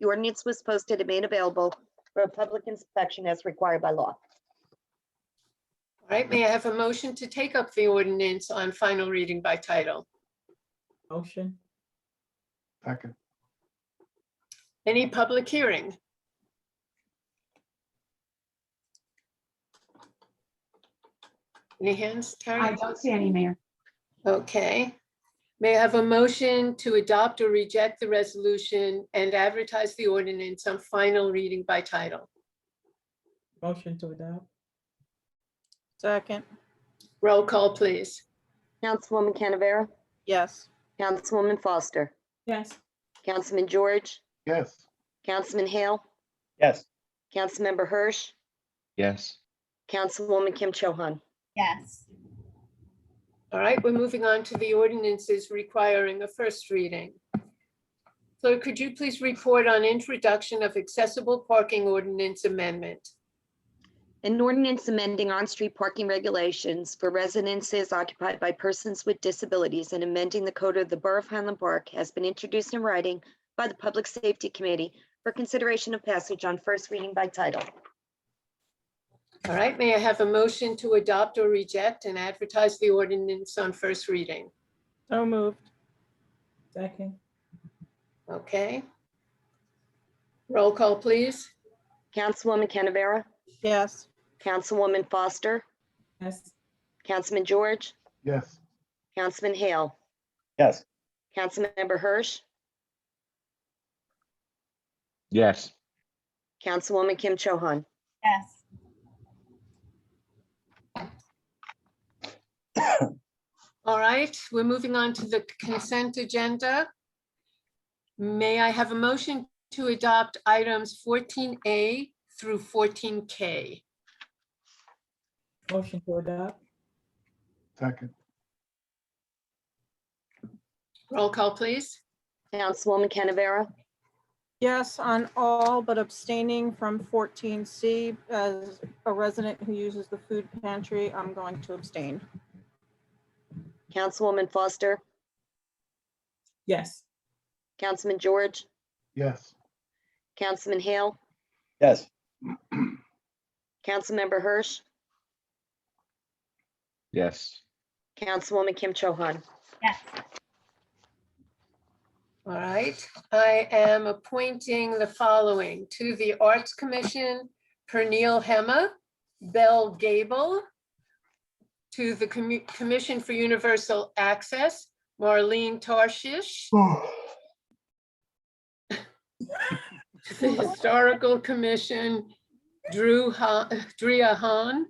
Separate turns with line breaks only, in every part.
The ordinance was posted and made available for public inspection as required by law.
All right, may I have a motion to take up the ordinance on final reading by title?
Motion,
Second.
Any public hearing? Any hands,
I
Karen?
don't see any, Mayor.
Okay. May I have a motion to adopt or reject the resolution and advertise the ordinance on final reading by title?
motion to adopt.
Second,
Roll call, please.
Councilwoman Canavera?
yes.
Councilwoman Foster?
Yes.
Councilman George?
Yes.
Councilman Hale?
Yes.
Councilmember Hirsch?
yes,
Councilwoman Kim Cho Han?
yes,
All right, we're moving on to the ordinances requiring a first reading. Clerk, could you please report on introduction of accessible parking ordinance amendment?
An ordinance amending on-street parking regulations for residences occupied by persons with disabilities and amending the code of the Borough of Highland Park has been introduced in writing by the Public Safety Committee for consideration of passage on first reading by title.
All right, may I have a motion to adopt or reject and advertise the ordinance on first reading?
So moved,
Second,
Okay. Roll call, please.
Councilwoman Canavera?
yes.
Councilwoman Foster?
yes.
Councilman George?
Yes.
Councilman Hale?
Yes.
Councilmember Hirsch?
yes.
Councilwoman Kim Cho Han?
yes.
All right, we're moving on to the consent agenda. May I have a motion to adopt items 14A through 14K?
Motion to adopt.
Second.
Roll call, please.
Councilwoman Canavera?
Yes on all, but abstaining from 14C. As a resident who uses the food pantry, I'm going to abstain.
Councilwoman Foster?
Yes.
Councilman George?
Yes.
Councilman Hale?
Yes.
Councilmember Hirsch?
Yes.
Councilwoman Kim Cho Han.
All right, I am appointing the following to the Arts Commission, Pernil Hema, Bell Gable, to the Commu- Commission for Universal Access, Marlene Tarshish, the Historical Commission, Drew, Ha- Drea Hahn,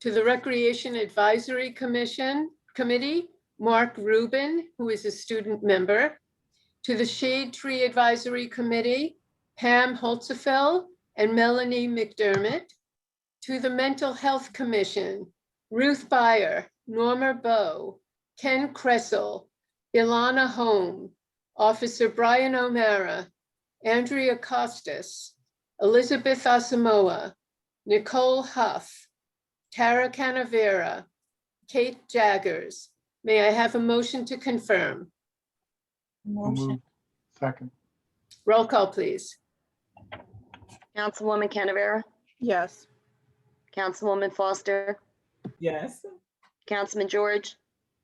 to the Recreation Advisory Commission, Committee, Mark Rubin, who is a student member, to the Shade Tree Advisory Committee, Pam Holzefeld and Melanie McDermott, to the Mental Health Commission, Ruth Byer, Norma Bowe, Ken Kressel, Ilana Home, Officer Brian O'Mara, Andrea Costas, Elizabeth Asamoah, Nicole Huff, Tara Canavera, Kate Jaggers. May I have a motion to confirm?
Move. Second.
Roll call, please.
Councilwoman Canavera?
Yes,
Councilwoman Foster?
Yes.
Councilman George?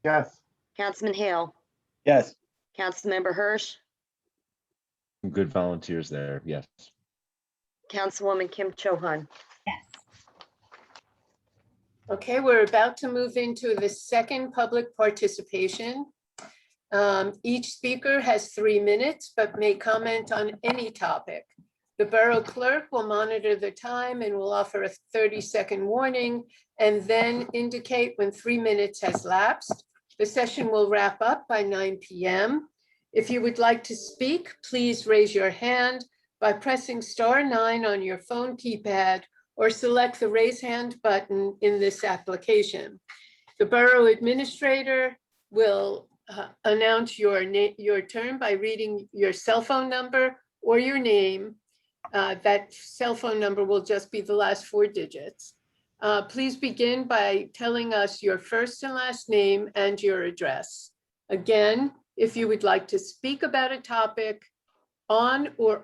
Yes.
Councilman Hale?
Yes.
Councilmember Hirsch?
Some Good volunteers there, yes.
Councilwoman Kim Cho Han.
Okay, we're about to move into the second public participation. Um, Each speaker has three minutes, but may comment on any topic. The borough clerk will monitor the time and will offer a 30-second warning and then indicate when three minutes has lapsed. The session will wrap up by 9 PM. If you would like to speak, please raise your hand by pressing star nine on your phone keypad or select the raise hand button in this application. The Borough Administrator will uh, announce your name, your turn by reading your cell phone number or your name. Uh, That cell phone number will just be the last four digits. Uh, Please begin by telling us your first and last name and your address. Again, if you would like to speak about a topic on or